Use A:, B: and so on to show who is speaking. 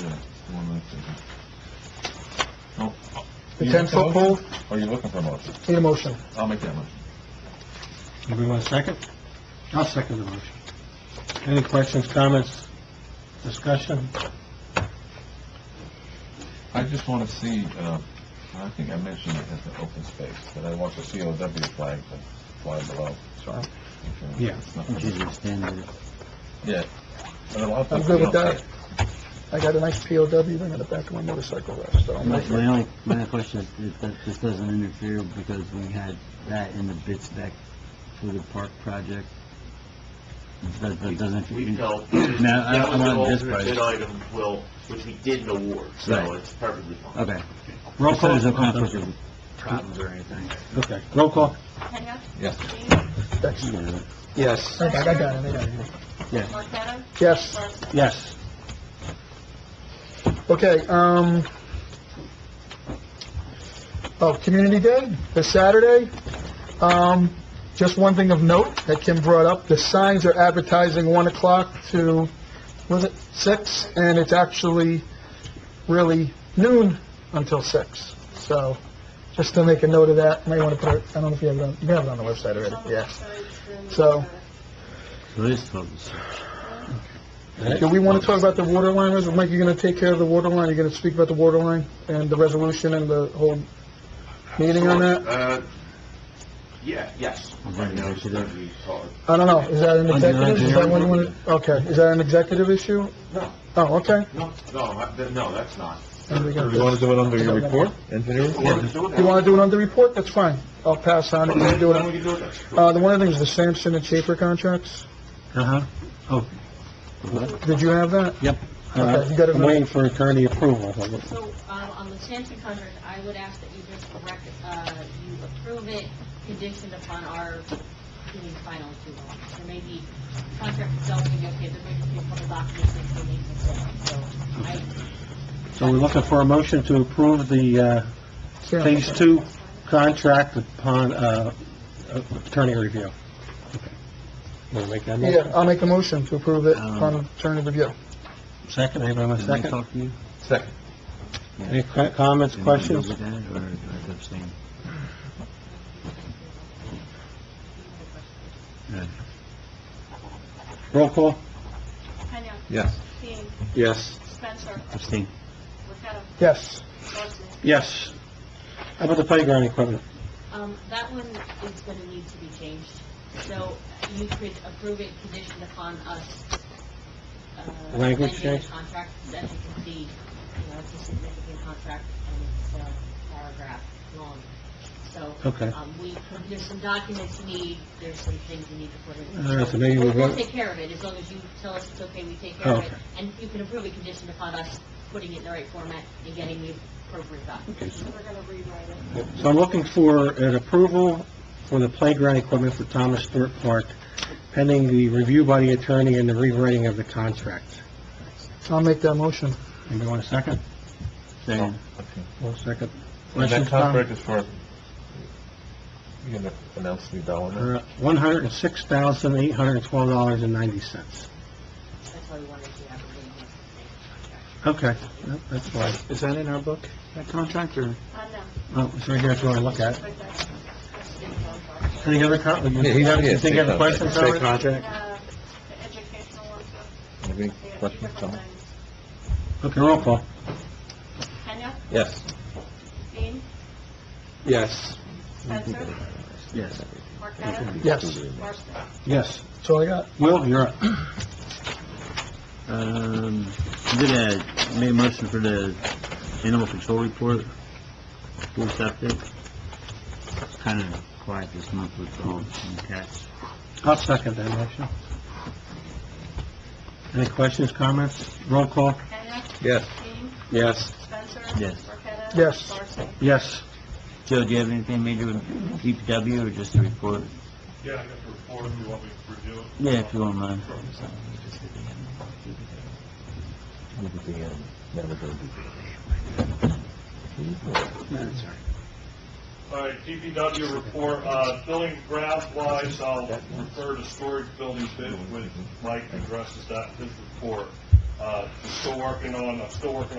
A: The
B: Oh, You looking
A: 10-foot pole,
B: Or are you looking for a motion?
A: need a motion.
B: I'll make that motion.
C: Anybody want a second? I'll second the motion. Any questions, comments, discussion?
B: I just want to see, uh, I think I mentioned it as an open space, but I want the COW flag to fly below.
C: Sorry.
B: If you-
C: Yeah.
B: it's not- Yeah. But a lot of
A: I'm
B: people
A: good with
B: don't
A: that. I got a nice POW ring on the back of my motorcycle rest, so I'm
D: My
A: not-
D: my only, my question is if that this doesn't interfere because we had that in the bid spec for the park project. That, that doesn't.
E: We felt,
D: Mm-hmm. Now, I
E: that was
D: don't
E: an
D: want this
E: alternate bid
D: price.
E: item, will, which we didn't award, so
D: Right.
E: it's perfectly fine.
D: Okay.
C: Roll
D: Just so there's no
C: call.
D: conflict of
E: Problems or anything?
C: Okay, roll call.
F: Kenya?
B: Yes.
F: Dean?
A: that's,
C: Yes.
A: I got I got it, I got it.
F: Marqueta?
A: Yes.
F: Marson?
C: Yes.
A: Okay, um, oh, Community Day, this Saturday. Um, just one thing of note that Kim brought up, the signs are advertising 1 o'clock to, was it 6? And it's actually really noon until 6. So, just to make a note of that, may want to put it, I don't know if you have it on, you have it on the website already, yeah. So-
D: police folks.
A: Do we want to talk about the water line, res- Mike, you're going to take care of the water line, you're going to speak about the water line and the resolution and the whole meeting on that?
E: Uh, yeah, yes.
D: Is that
E: Right now, it's
D: executive?
E: gonna be called-
A: I don't know, is that an
D: Under
A: executive, is that one,
D: engineering.
A: one- okay, is that an executive issue?
E: No,
A: Oh, okay.
E: no, no, I- th- no, that's not.
A: Then we got
C: You want
A: this.
C: to do it under your report?
B: Engineering?
E: We're doing that.
A: You want to do it on the report, that's fine, I'll pass on it, you
E: Okay,
A: can do
E: then we
A: it.
E: can do it.
A: Uh, the one other thing is the Sampson and Schaefer contracts,
C: Uh-huh.
A: did you have that?
C: Uh,
A: Okay, you got it.
C: I'm waiting for attorney approval.
G: So, um, on the Sampson contract, I would ask that you just rec, uh, you approve it conditioned upon our doing final approval. There may be contract itself, and okay, there may be a couple documents that still need to fill out, so I,
C: So we're looking for a motion to approve the, uh,
A: Sam-
C: Phase Two contract upon, uh, attorney review. Want to make that motion?
A: Yeah, uh, I'll make a motion to approve it
D: Um,
A: upon attorney review.
C: Second, anybody want a
D: Did I
C: second?
D: talk to you?
B: Second.
C: Any que- comments,
D: Did you
C: questions?
D: go with that, Or I was abstaining?
C: Roll call?
F: Kenya?
B: Yes.
F: Dean?
C: Yes.
F: Spencer?
D: Abstain.
F: Marqueta?
A: Yes,
F: Marson?
C: Yes. How about the playground equipment?
G: um, that one is gonna need to be changed. So you could approve it conditioned upon us, uh,
C: Language
G: amending the
C: change?
G: contract, as you can see, you know, it's a significant contract, and it's a paragraph long. So,
C: Okay.
G: Um, we, there's some documents you need, there's some things you need to put in.
C: All right, so maybe we'll
G: We'll
C: vote- Oh,
G: take care of it, as long as you tell us it's okay, we take care of it.
C: Okay.
G: And you can approve it conditioned upon us putting it in the right format and getting the appropriate documents.
F: We're gonna rewrite it.
C: So I'm looking for an approval for the playground equipment for Thomas Stewart Park pending the review by the attorney and the rewriting of the contract.
A: I'll make that motion.
C: Anybody want a second?
D: Abstain.
B: Okay.
C: One second.
B: And that
C: Questions, Tom?
B: contract is for, you gonna announce the dollar?
C: Uh, $106,812.90.
G: That's why we wanted to have a meeting. contract.
C: Okay, Yep, that's fine.
A: Is that in our book?
C: That contract, or?
F: Uh, no.
C: Oh, it's right here, if you want to look at it.
F: Right there.
C: Any other comments?
B: Yeah, he's out here.
C: Think of the questions, Howard?
F: And, uh, the educational ones, uh,
B: Any
F: yeah, two
B: questions,
F: different
B: Tom?
F: things.
C: Okay, roll call.
F: Kenya?
B: Yes.
F: Dean?
C: Yes.
F: Spencer?
D: Yes.
F: Marqueta?
A: Yes,
F: Marson?
C: Yes.
A: that's all I got.
C: Will, you're up.
D: Um, I did a, made a motion for the animal control report, full septic. It's kind of quiet this month with dogs and cats.
C: I'll second that motion. Any questions, comments? Roll call?
F: Kenya?
B: Yes.
F: Dean?
C: Yes.
F: Spencer?
D: Yes.
F: Marqueta?
A: Yes.
F: Marson?
C: Yes.
D: Joe, do you have anything major with DPW or just a report?
H: Yeah, I got the report, if you want me to review it.
D: Yeah, if you don't mind.
B: Look at the, um, never go
H: All right, DPW report, uh, building ground wise, I'll refer to storage building bid when Mike addresses that, his report. Uh, still working on, I'm still working on.